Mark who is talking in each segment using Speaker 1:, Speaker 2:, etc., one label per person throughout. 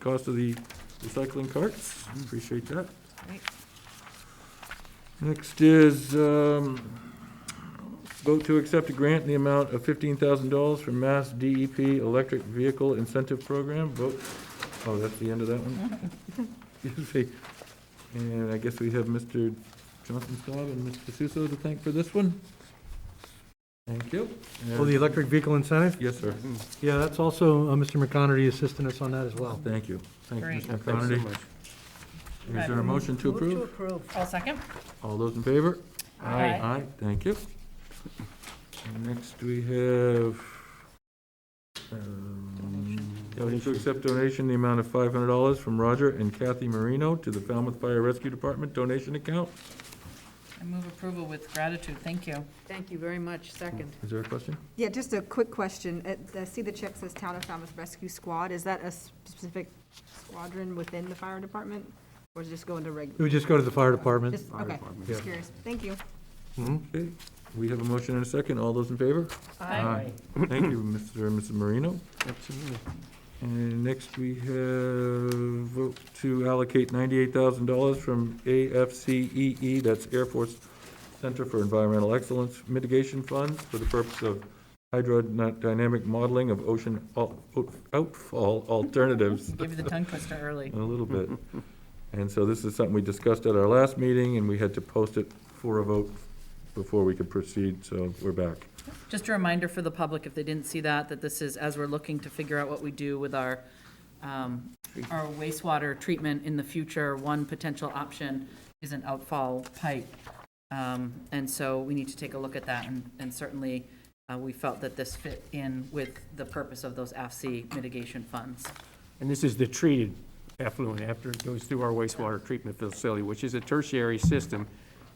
Speaker 1: cost of the recycling carts. Appreciate that.
Speaker 2: Right.
Speaker 1: Next is, um, vote to accept a grant in the amount of fifteen thousand dollars from Mass DEP Electric Vehicle Incentive Program. Vote, oh, that's the end of that one? Excuse me. And I guess we have Mr. Johnson Staub and Mr. Suso to thank for this one. Thank you.
Speaker 3: Well, Oh, the electric vehicle incentive?
Speaker 1: Yes, sir.
Speaker 3: Yeah, that's also, uh, Mr. McConerty assisting us on that as well.
Speaker 1: Thank you. Thank
Speaker 2: Great.
Speaker 1: you, Mr. Conity. Is there a motion to approve?
Speaker 2: All second?
Speaker 1: All those in favor?
Speaker 2: Aye.
Speaker 1: Aye, thank you. And Next, we have, um, vote to accept donation in the amount of five hundred dollars from Roger and Kathy Marino to the Falmouth Fire Rescue Department donation account.
Speaker 2: I move approval with gratitude, thank you.
Speaker 4: Thank you very much, second.
Speaker 1: Is there a question?
Speaker 5: Yeah, just a quick question. It- I see the check says Town of Falmouth Rescue Squad. Is that a specific squadron within the fire department? Or is it just going to
Speaker 3: It
Speaker 5: regular?
Speaker 3: would just go to the fire department.
Speaker 5: Okay, just curious. Thank you.
Speaker 3: Mhm.
Speaker 1: Okay, we have a motion and a second. All those in favor? Thank you, Mr. and Mrs. Marino.
Speaker 6: Absolutely.
Speaker 1: And next, we have vote to allocate ninety-eight thousand dollars from AFCEE, E that's Air Force Center for Environmental Excellence Mitigation Fund, for the purpose of hydrodynamic modeling of ocean al- out- outfall alternatives,
Speaker 2: Give you the tongue twister early.
Speaker 1: a little bit. And so this is something we discussed at our last meeting, and we had to post it for a vote before we could proceed, so we're back.
Speaker 2: Just a reminder for the public, if they didn't see that, that this is, as we're looking to figure out what we do with our, um, our wastewater treatment in the future, one potential option is an outfall pipe. Um, And so we need to take a look at that, and- and certainly, uh, we felt that this fit in with the purpose of those AFC mitigation funds.
Speaker 6: And this is the treated effluent after it goes through our wastewater treatment facility, which is a tertiary system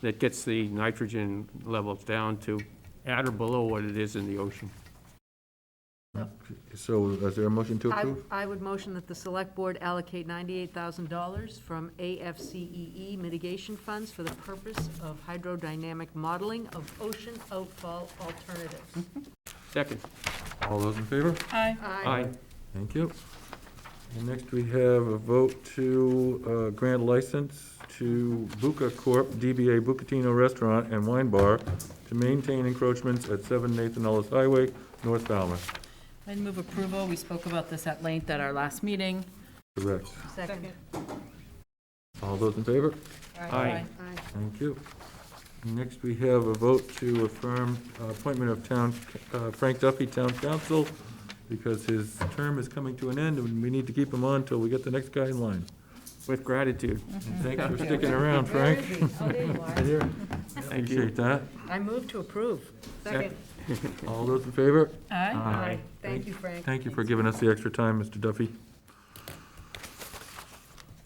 Speaker 6: that gets the nitrogen levels down to at or below what it is in the ocean.
Speaker 1: So is there a motion to
Speaker 4: I,
Speaker 1: approve?
Speaker 4: I would motion that the Select Board allocate $98,000 from AFCEE E mitigation funds for the purpose of hydrodynamic modeling of ocean outfall alternatives.
Speaker 6: Second.
Speaker 1: All those in favor?
Speaker 2: Aye.
Speaker 6: Aye.
Speaker 1: Thank you. And next, we have a vote to uh, grant license to Buca Corp., DBA Bucatino Restaurant and Wine Bar, to maintain encroachments at 7 Nathan Ellis Highway, North Falmouth.
Speaker 2: I'd move approval. We spoke about this at length at our last meeting.
Speaker 1: Correct.
Speaker 4: Second.
Speaker 1: All those in favor?
Speaker 6: Aye.
Speaker 4: Aye.
Speaker 1: Thank you. Next, we have a vote to affirm uh, appointment of town, uh, Frank Duffy, Town Council, because his term is coming to an end, and we need to keep him on until we get the next guy in line.
Speaker 6: With gratitude.
Speaker 5: Mm-hmm.
Speaker 1: Thanks for sticking around,
Speaker 4: Where
Speaker 1: Frank.
Speaker 4: is he? Oh, there you are.
Speaker 6: Thank you.
Speaker 1: Appreciate that.
Speaker 4: I move to approve. Second.
Speaker 1: All those in favor?
Speaker 2: Aye.
Speaker 1: Aye.
Speaker 4: Thank you, Frank.
Speaker 1: Thank you for giving us the extra time, Mr. Duffy.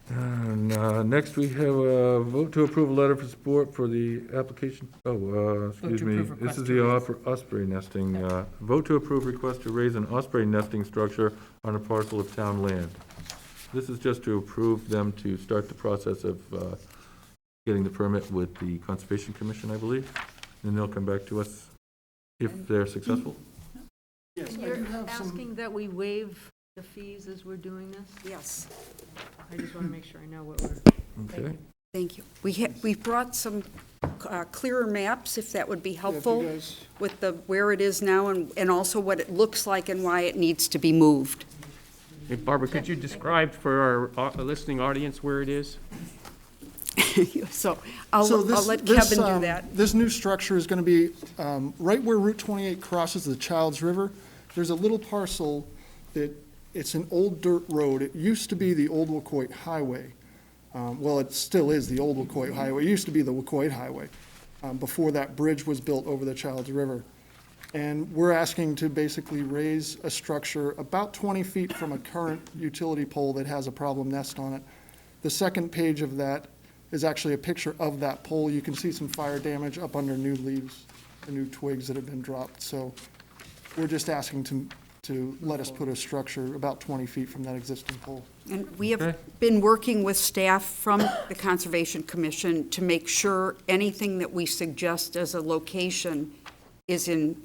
Speaker 1: And uh, next, we have a vote to approve a letter for support for the application, oh, uh, excuse
Speaker 2: to
Speaker 1: me.
Speaker 2: approve
Speaker 1: This
Speaker 2: request
Speaker 1: is
Speaker 2: to
Speaker 1: the
Speaker 2: raise-
Speaker 1: offer- osprey nesting. uh, Vote to approve request to raise an osprey nesting structure on a parcel of town land. This is just to approve them to start the process of uh, getting the permit with the Conservation Commission, I believe, and they'll come back to us if they're successful.
Speaker 4: You're asking that we waive the fees as we're doing this?
Speaker 7: Yes,
Speaker 4: I just want to make sure I know what we're.
Speaker 1: Okay?
Speaker 7: thank you. We have, we brought some uh, clearer maps, if that would be helpful, with the, where it is now and, and also what it looks like and why it needs to be moved.
Speaker 6: Hey, Barbara, could you describe for our au- listening audience where it is?
Speaker 7: So
Speaker 8: So
Speaker 7: I'll, I'll
Speaker 8: this-
Speaker 7: let
Speaker 8: this,
Speaker 7: Kevin do
Speaker 8: um,
Speaker 7: that.
Speaker 8: This new structure is going to be um, right where Route 28 crosses the Childs River. There's a little parcel that, it's an old dirt road. It used to be the old Wacoit Highway. Um, Well, it still is the old Wacoit Highway. It used to be the Wacoit Highway um, before that bridge was built over the Childs River. And we're asking to basically raise a structure about 20 feet from a current utility pole that has a problem nest on it. The second page of that is actually a picture of that pole. You can see some fire damage up under new leaves, the new twigs that have been dropped. So we're just asking to, to let us put a structure about 20 feet from that existing pole.
Speaker 7: And we have been working with staff from the Conservation Commission to make sure anything that we suggest as a location is in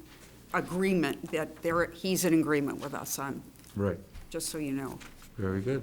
Speaker 7: agreement, that there, he's in agreement with us on,
Speaker 1: Right.
Speaker 7: just so you know.
Speaker 1: Very good.